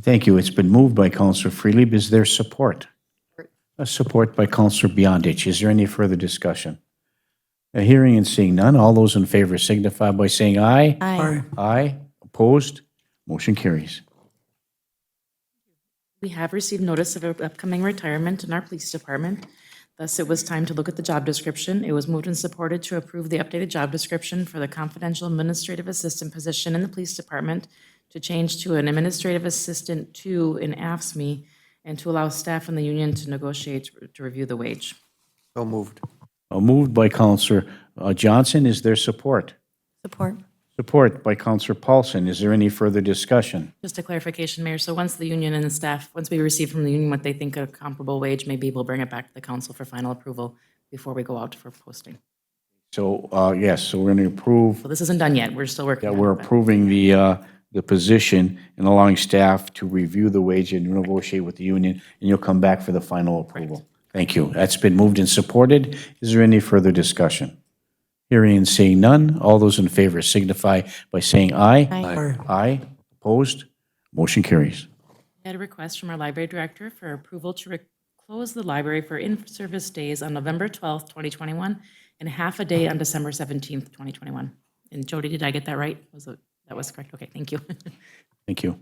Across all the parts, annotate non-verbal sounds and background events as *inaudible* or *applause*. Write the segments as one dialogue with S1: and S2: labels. S1: Thank you. It's been moved by Counselor Freely. Is there support? A support by Counselor Beyondich. Is there any further discussion? A hearing and seeing none, all those in favor signify by saying aye.
S2: Aye.
S1: Aye. Opposed? Motion carries.
S2: We have received notice of an upcoming retirement in our police department. Thus, it was time to look at the job description. It was moved and supported to approve the updated job description for the confidential administrative assistant position in the police department to change to an administrative assistant two in AFSMI E, and to allow staff in the union to negotiate to review the wage.
S3: So moved.
S1: Uh, Moved by Counselor uh, Johnson. Is there support?
S4: Support.
S1: Support by Counselor Paulson. Is there any further discussion?
S2: Just a clarification, Mayor. So once the union and the staff, once we receive from the union what they think a comparable wage may be, we'll bring it back to the council for final approval before we go out for posting.
S1: So, uh, yes, so we're going to approve
S2: So this isn't done yet. We're still working
S1: that
S2: on it.
S1: we're
S2: but-
S1: approving the, uh, the position and allowing staff to review the wage and negotiate with the union, and you'll come back for the final approval. Thank you. That's been moved and supported. Is there any further discussion? Hearing and seeing none, all those in favor signify by saying aye. Aye. Aye. Opposed? Motion carries.
S2: We had a request from our library director for approval to re- close the library for in-service days on November 12th, 2021, and half a day on December 17th, 2021. And Jody, did I get that right? Was it, that was correct? Okay, thank you. *laughs*
S1: Thank you.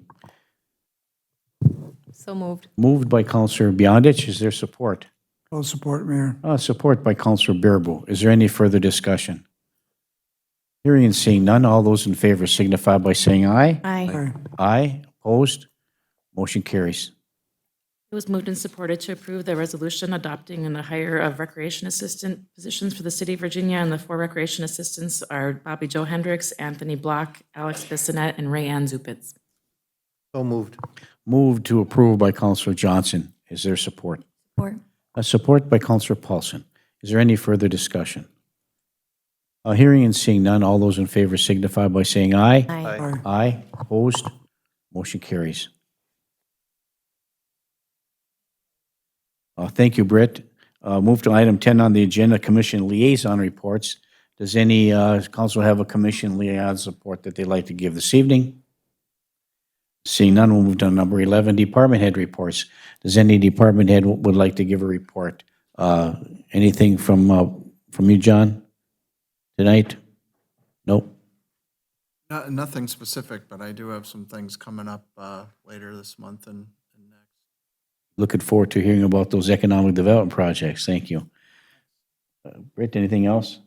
S4: So moved.
S1: Moved by Counselor Beyondich. Is there support?
S5: Full support, Mayor.
S1: Uh, Support by Counselor Bearable. Is there any further discussion? Hearing and seeing none, all those in favor signify by saying aye.
S4: Aye.
S1: Aye, opposed, motion carries.
S2: It was moved and supported to approve the resolution adopting and the hire of recreation assistant positions for the city of Virginia, and the four recreation assistants are Bobby Joe Hendricks, Anthony Block, Alex Bissonette, and Ray Ann Zupitz.
S3: So moved.
S1: Moved to approve by Counselor Johnson. Is there support?
S4: Support.
S1: A support by Counselor Paulson. Is there any further discussion? Uh, Hearing and seeing none, all those in favor signify by saying aye.
S4: Aye.
S1: Aye, opposed, motion carries. Uh, Thank you, Britt. Uh, Move to item 10 on the agenda, Commission Liaison Reports. Does any uh, council have a Commission Liaison report that they'd like to give this evening? Seeing none, we'll move to number 11, Department Head Reports. Does any department head w- would like to give a report? Uh, Anything from, uh, from you, John, tonight? Nope.
S6: No- Nothing specific, but I do have some things coming up uh, later this month and and next.
S1: looking forward to hearing about those economic development projects. Thank you. Uh, Britt, anything else?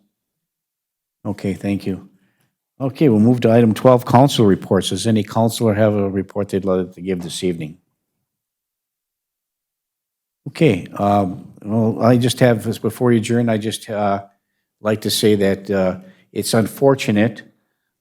S1: Okay, thank you. Okay, we'll move to item 12, council reports. Does any counselor have a report they'd like to give this evening? Okay, um, well, I just have, this before you adjourn, I just uh, like to say that uh, it's unfortunate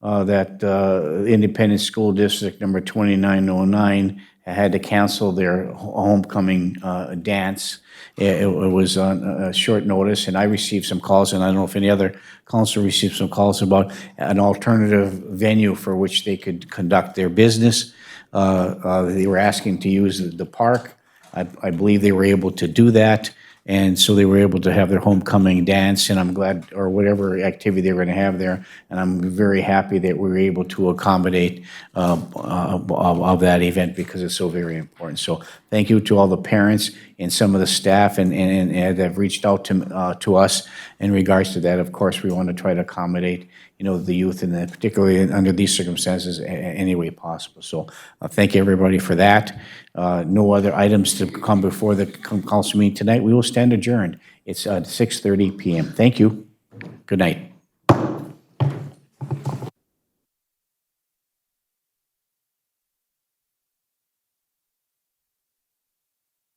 S1: uh, that uh, Independent School District Number 2909 had to cancel their ho- homecoming uh, dance. It it was on uh, short notice, and I received some calls, and I don't know if any other council received some calls about an alternative venue for which they could conduct their business. Uh, uh, They were asking to use the- the park. I, I believe they were able to do that, and so they were able to have their homecoming dance, and I'm glad, or whatever activity they were going to have there, and I'm very happy that we were able to accommodate uh, uh, of of that event because it's so very important. So thank you to all the parents and some of the staff and, and and that have reached out to, uh, to us in regards to that. Of course, we want to try to accommodate, you know, the youth and particularly under these circumstances a- a- any way possible. So uh, thank everybody for that. Uh, No other items to come before the c- council meeting tonight. We will stand adjourned. It's uh, 6:30 PM. Thank you. Good night.